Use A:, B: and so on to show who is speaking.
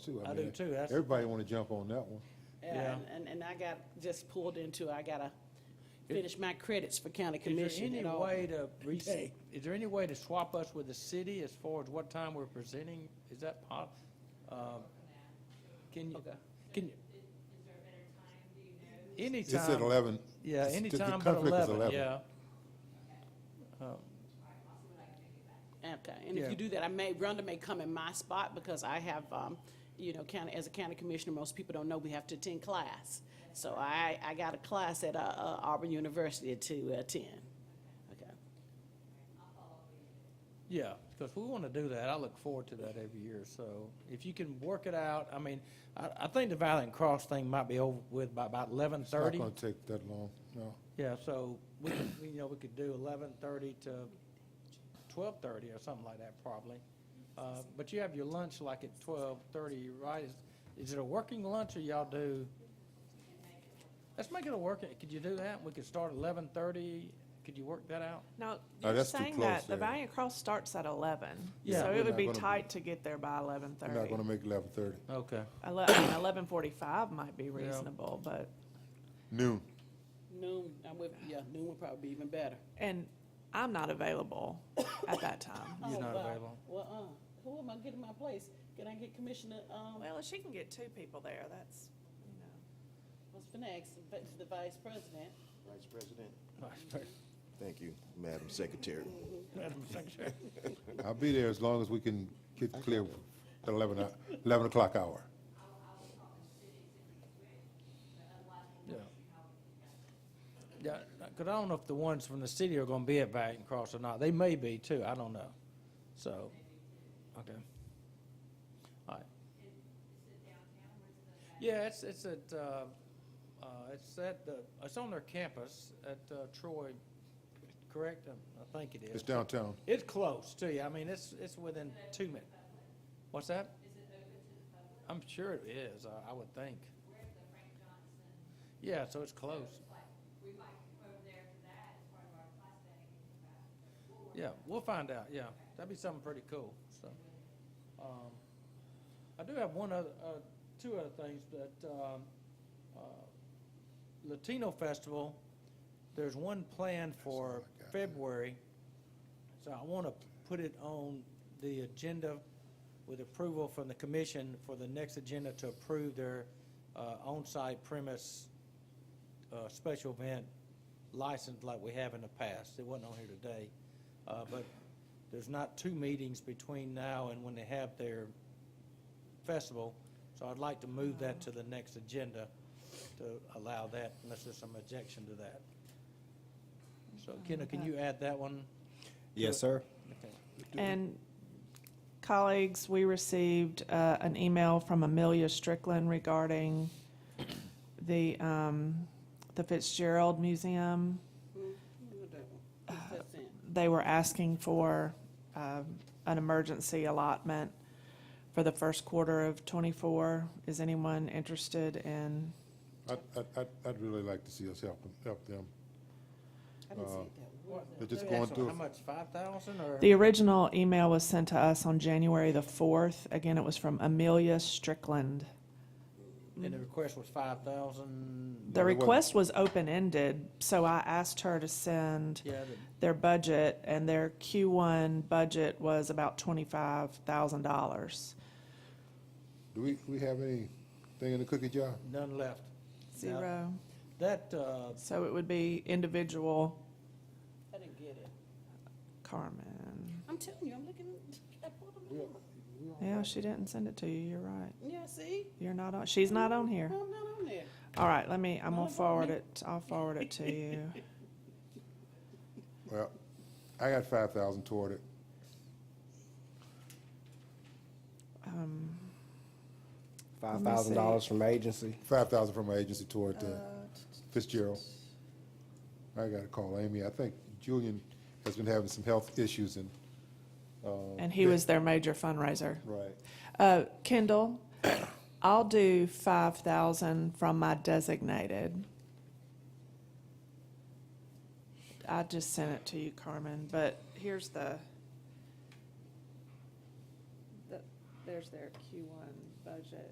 A: too.
B: I do
A: mean,
B: too. That's-
A: Everybody want to jump on that one.
B: Yeah.
C: Yeah, and- and, and I got, just pulled into, I gotta finish my credits for county
B: Is
C: commission
B: there any
C: and all.
B: way to, re-
C: day.
B: is there any way to swap us with the city as far as what time we're presenting? Is that possible? Can you,
C: Okay.
B: can you?
A: It's at
B: Anytime,
A: eleven.
B: yeah,
A: It's- the- the
B: anytime but
A: conflict is
B: eleven, yeah.
C: Okay, and if
B: Yeah.
C: you do that, I may, Rhonda may come in my spot because I have, um, you know, county, as a county commissioner, most people don't know we have to attend class. So I, I got a class at, uh, uh, Auburn University to attend. Okay.
B: Yeah, because we want to do that. I look forward to that every year. So if you can work it out, I mean, I, I think the Valiant Cross thing might be over with by about eleven
A: It's not
B: thirty.
A: going to take that long, no.
B: Yeah, so we, could- we, you know, we could do eleven thirty to twelve thirty or something like that probably. Uh, but you have your lunch like at twelve thirty, right? Is, is it a working lunch or y'all do? Let's make it a working, could you do that? We could start eleven thirty. Could you work that out?
D: No,
A: Oh,
D: you're
A: that's too
D: saying
A: close
D: that, the
A: there.
D: Valiant Cross starts at eleven.
B: Yeah.
D: So
A: We're
D: it
A: not
D: would be
A: gonna-
D: tight to get there by eleven
A: We're not
D: thirty.
A: going to make eleven thirty.
B: Okay.
D: Eleven, eleven forty-five might be reasonable, but,
A: Noon.
C: Noon, I'm with, yeah, noon would probably be even better.
D: and I'm not available at that time.
B: You're
C: Oh,
B: not
C: wow.
B: available.
C: Well, uh, who am I getting my place? Can I get Commissioner, um,
D: Well, if she can get two people there, that's, you know.
C: what's the next, the vice president?
E: Vice President. Thank you, Madam Secretary.
B: Madam Secretary.
A: I'll be there as long as we can get clear at eleven, o- eleven o'clock hour.
B: Yeah, Yeah, because I don't know if the ones from the city are going to be at Valiant Cross or not. They may be too, I don't know. So, okay. All right. Yeah, it's, it's at, uh, uh, it's at, the it's on their campus at uh, Troy, correct? I- I think it
A: It's
B: is.
A: downtown.
B: It's close too, I mean, it's, it's within two minutes. What's that? I'm sure it is, I- I would think. Yeah, so it's close.
F: We might go over there for that as part of our class day.
B: Yeah, we'll find out, yeah. That'd be something pretty cool, so. um, I do have one other, uh, two other things, that um, uh, Latino Festival, there's one planned for February. So I want to put it on the agenda with approval from the commission for the next agenda to approve their uh, on-site premise uh, special event license like we have in the past. It wasn't on here today. Uh, But there's not two meetings between now and when they have their festival. So I'd like to move that to the next agenda to allow that unless there's some objection to that. So Kendall, can you add that one?
G: Yes, sir.
B: Okay.
D: And colleagues, we received, uh, an email from Amelia Strickland regarding the, um, the Fitzgerald Museum.
C: That's it.
D: they were asking for um, an emergency allotment for the first quarter of '24. Is anyone interested in,
A: I'd, I'd- I'd, I'd really like to see us help them, help them.
C: I didn't see it that way.
A: They're just
B: Let me
A: going
B: ask you,
A: through.
B: How much, five thousand or?
D: the original email was sent to us on January the 4th. Again, it was from Amelia Strickland.
B: And the request was five thousand?
D: The
A: Well, it wasn't-
D: request was open-ended, so I asked her to send
B: Yeah,
D: their budget, and their Q1 budget was about $25,000.
A: Do we, we have anything in the cookie jar?
B: the- none left.
D: Zero.
B: That, uh,
D: So it would be individual
C: I didn't get it.
D: Carmen.
C: I'm telling you, I'm looking, I pulled them
A: We-
C: up.
D: Yeah, she didn't send it to you. You're right.
C: Yeah, see?
D: You're not on, she's not on
C: I'm
D: here.
C: not on there.
D: All right, let me,
C: Not
D: I'm gonna
C: about
D: forward
C: me.
D: it, I'll forward it to you.
A: Well, I got five thousand toward it.
G: Five thousand dollars from agency.
A: Five thousand from my agency toward uh, Fitzgerald. I gotta call Amy. I think Julian has been having some health issues and, uh,
D: And he was their major fundraiser.
A: right.
D: Uh, Kendall, I'll do five thousand from my designated. I just sent it to you, Carmen, but here's the, the, there's their Q one budget.